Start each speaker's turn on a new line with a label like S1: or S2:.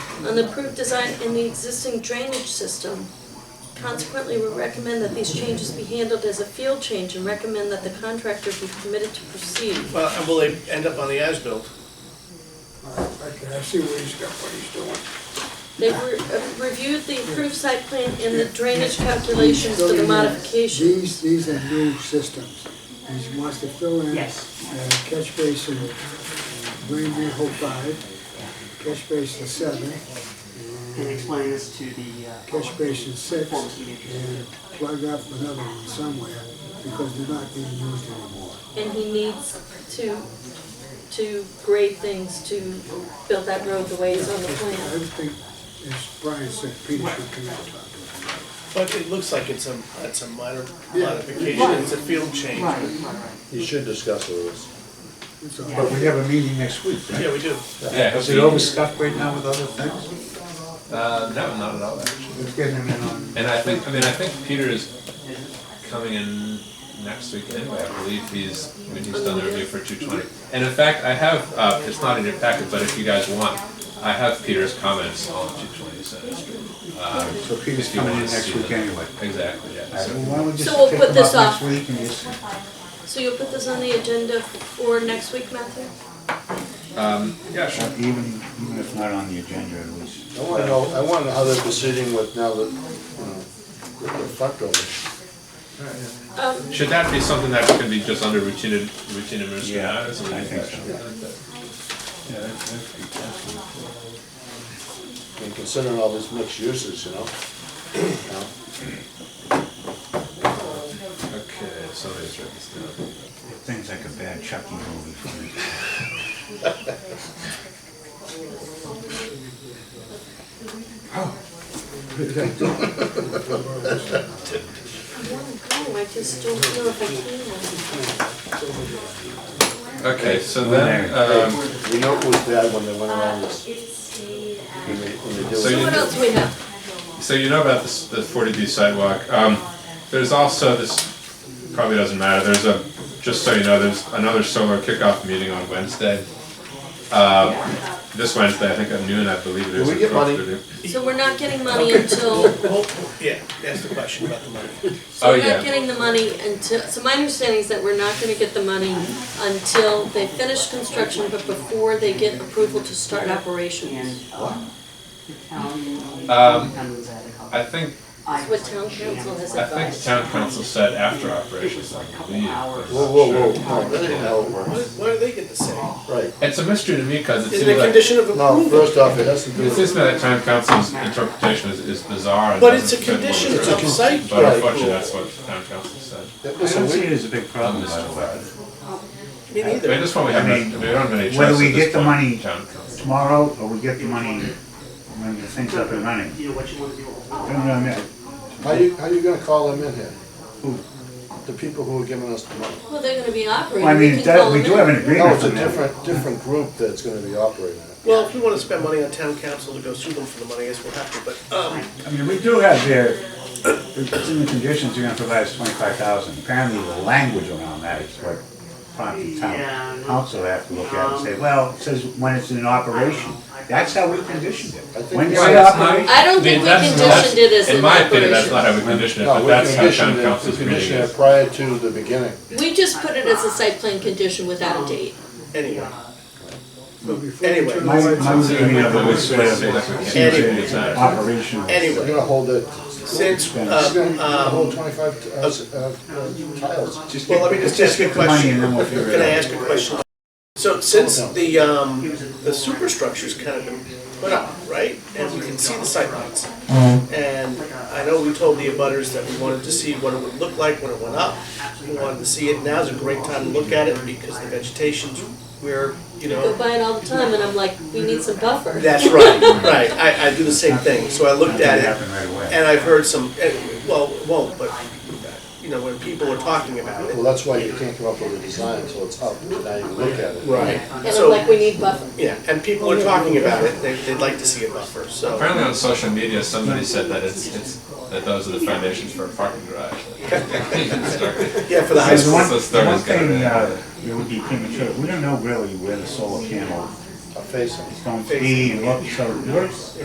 S1: on the approved design in the existing drainage system. Consequently, we recommend that these changes be handled as a field change and recommend that the contractor be permitted to proceed.
S2: Well, and will they end up on the as-built?
S3: Okay, I see what he's got, what he's doing.
S1: They re- uh, reviewed the approved site plan and the drainage calculations for the modification.
S3: These, these are new systems. He wants to fill in.
S4: Yes.
S3: uh, Catch basin, uh, Green Manhole Five, catch basin Seven,
S4: and explain this to the, uh,
S3: catch basin Six,
S4: Performance meeting.
S3: and plug up another one somewhere because they're not being used anymore.
S1: And he needs to, to grade things to build that road the way it's on the
S3: I
S1: plan.
S3: would think, as Brian said, Peter should come out about this.
S2: But it looks like it's a, it's a minor
S3: Yeah.
S2: modification, it's a field change.
S4: Right, right, right.
S5: You should discuss it with us.
S3: It's all.
S6: But we have a meeting next week, right?
S2: Yeah, we do.
S7: Yeah,
S6: Is it overstuffed right now with other things?
S7: Uh, no, not at all, actually.
S6: Let's get him in on,
S7: And I think, I mean, I think Peter is coming in next week anyway, I believe he's, I mean, he's done the review for two twenty. And in fact, I have, uh, it's not in your packet, but if you guys want, I have Peter's comments on two twenty Center Street. Um,
S6: so Peter's
S7: if you
S6: coming
S7: want
S6: in
S7: to see
S6: next week
S7: them.
S6: anyway.
S7: Exactly, yeah.
S6: Alright, well,
S7: So-
S6: why don't we just
S1: So we'll
S6: pick
S1: put
S6: him
S1: this
S6: up
S1: off.
S6: next week and just,
S1: So you'll put this on the agenda for next week, Matthew?
S7: Yeah, sure.
S6: even, even if not on the agenda, at least.
S5: I wanna know, I wanna know how they're proceeding with now that, you know, that they're fucked over.
S1: Um,
S7: Should that be something that could be just under routine, routine administrative
S6: Yeah,
S7: matters? or
S6: I think so.
S7: something like that?
S6: Yeah, that's, that's good.
S5: And considering all these mixed uses, you know? You know?
S7: Okay, somebody's written this down.
S6: Things like a bad Chucky movie for me.
S1: I wanna go, I just don't know if I can.
S7: Okay, so then, um,
S5: We know it was bad when they went around this. When they, when they do
S7: So
S1: So
S7: you-
S5: it.
S1: what else we have?
S7: so you know about this, the forty B sidewalk, um, there's also this, probably doesn't matter, there's a, just so you know, there's another solar kickoff meeting on Wednesday. Uh, this Wednesday, I think at noon, I believe it is.
S5: Do we get money?
S7: 12:30.
S1: So we're not getting money until,
S2: Well, yeah, that's the question about the money.
S1: so
S7: Oh,
S1: we're not
S7: yeah.
S1: getting the money until, so my understanding is that we're not gonna get the money until they finish construction, but before they get approval to start
S4: And,
S1: operations.
S4: um, the town, uh,
S7: Um,
S4: town was at a couple-
S7: I think,
S4: I-
S1: What town council has
S7: I think
S1: advised?
S7: town council said after operations, I believe. but
S5: Whoa,
S7: I'm
S5: whoa,
S7: not
S5: whoa,
S7: sure.
S5: no, that ain't how it
S2: Why
S5: works.
S2: why do they get the same?
S5: Right.
S7: It's a mystery to me, because it
S2: It's
S7: seems
S2: a
S7: like,
S2: condition of
S5: No,
S2: approval.
S5: first off, it has to do
S7: it seems
S5: with,
S7: that town council's interpretation is, is bizarre. and
S2: But it's a
S7: doesn't fit what
S2: condition,
S7: we're
S2: it's
S7: doing.
S2: on site.
S7: But
S5: Right.
S7: unfortunately, that's what town council said.
S5: listen,
S6: I don't see
S5: we,
S6: it as a big problem, by the way.
S2: Me
S7: I mean,
S2: neither.
S7: this one we have, no-
S6: I
S7: we
S6: mean,
S7: don't have any choice
S6: whether we
S7: at this
S6: get the
S7: point.
S6: money-
S7: Town council.
S6: Tomorrow, or we get the money when the thing's up and running.
S4: You know what you wanna do?
S1: Oh.
S6: You know what I mean?
S5: how you, how you gonna call them in here?
S6: Who?
S5: The people who are giving us the money.
S1: Well, they're gonna be
S6: Well, I
S1: operating, we
S6: mean,
S1: can call Oh,
S6: that, we
S1: them
S6: do have
S1: in.
S6: an
S5: No,
S6: agreement
S5: it's a
S6: on that.
S5: different, different group that's gonna be operating it.
S2: Well, if we wanna spend money on town council to go sue them for the money, I guess we'll have to, but, um,
S6: I mean, we do have their, it's in the conditions they're gonna provide us twenty-five thousand. Apparently, the language around that is what prompted
S4: Yeah,
S6: town
S4: no.
S6: council to have to look at and say, well, it says when it's in operation.
S4: Um,
S6: That's how we conditioned
S5: I
S6: it.
S5: think
S6: When
S5: it's-
S6: you're in
S7: Well, it's not-
S6: operation.
S1: I don't
S7: I mean,
S1: think we
S7: that's-
S1: conditioned it as
S7: that's- In
S1: an
S7: my opinion, that's not
S1: operation.
S7: how we condition it,
S5: No,
S7: but
S5: we
S7: that's how town
S5: conditioned it, we
S7: council's reading
S5: conditioned it
S7: it.
S5: prior to the beginning.
S1: We just put it as a site plan condition without a date.
S2: anyway.
S3: But before we
S2: Anyway.
S3: turn the
S6: My,
S3: lights
S6: my
S3: on-
S6: reading of it was
S7: Say
S6: sort
S7: that
S6: of,
S7: we
S6: it seems
S7: can't do
S6: it's
S7: that.
S6: operational.
S5: We're
S2: Anyway,
S5: gonna hold it,
S2: since,
S6: um,
S5: we're
S2: uh,
S5: gonna gonna hold twenty-five, t- uh, s- uh, uh, tiles.
S6: Just
S2: well,
S6: get-
S2: let me just
S6: just
S2: ask you a
S6: get the money
S2: question.
S6: and then we'll figure it
S2: Can I
S6: out.
S2: ask a question? So since the, um, the superstructure's kind of been put up, right, and we can see the sightlines.
S6: Mm-hmm.
S2: And I know we told the abutters that we wanted to see what it would look like when it went up. We wanted to see it, now's a great time to look at it because the vegetation's where, you
S1: Go
S2: know.
S1: by it all the time and I'm like, we need some buffer.
S2: That's right, right, I, I do the same thing, so I looked at
S6: It
S2: it.
S6: happened right away.
S2: And I've heard some, eh, well, it won't, but, you know, when people are talking about
S5: Well,
S2: it.
S5: that's why you can't come up with a design until it's up, and now you look at it.
S1: And I'm like, we need buffer.
S2: Yeah, and people are talking about it, they, they'd like to see a buffer, so.
S7: Apparently on social media, somebody said that it's, it's, that those are the foundations for a parking garage.
S2: Yeah, for the high
S6: There's
S2: school.
S6: one,
S7: So it's
S6: one
S7: gotta
S6: thing,
S7: be-
S6: uh, it would be premature, we don't know really where the solar panel
S5: A facing.
S6: is going to be, and what, so we're,